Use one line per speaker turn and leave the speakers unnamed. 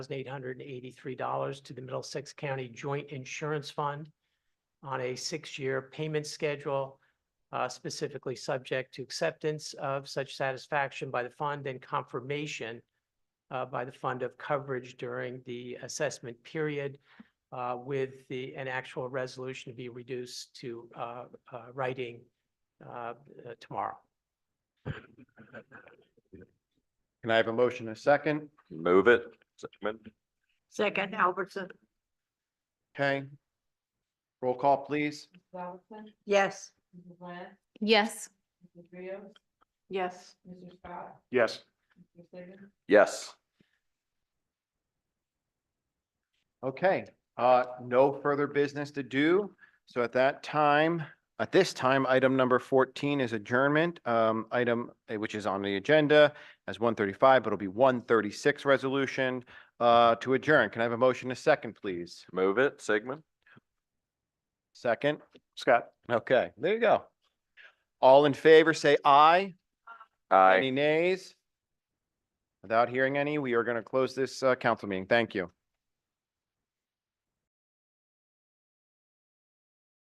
eight hundred and eighty-three dollars to the Middlesex County Joint Insurance Fund on a six-year payment schedule, uh, specifically subject to acceptance of such satisfaction by the fund and confirmation uh, by the fund of coverage during the assessment period uh, with the, an actual resolution to be reduced to uh, uh, writing uh, uh, tomorrow.
Can I have a motion and a second?
Move it. Second.
Second, Albertson.
Okay. Roll call, please.
Mrs. Albertson,
Yes.
Mrs. Lynn,
yes,
Mrs. Rios,
Yes.
Mr. Scott,
Yes.
Mr. Saban,
Yes.
Okay, uh, no further business to do. So at that time, at this time, item number fourteen is adjournment. Um, item, uh, which is on the agenda as one thirty-five, but it'll be one thirty-six resolution, uh, to adjourn. Can I have a motion and a second, please?
Move it. Sigmund.
Second?
Scott.
Okay, there you go. All in favor, say aye.
Aye.
Any nays? Without hearing any, we are going to close this, uh, council meeting. Thank you.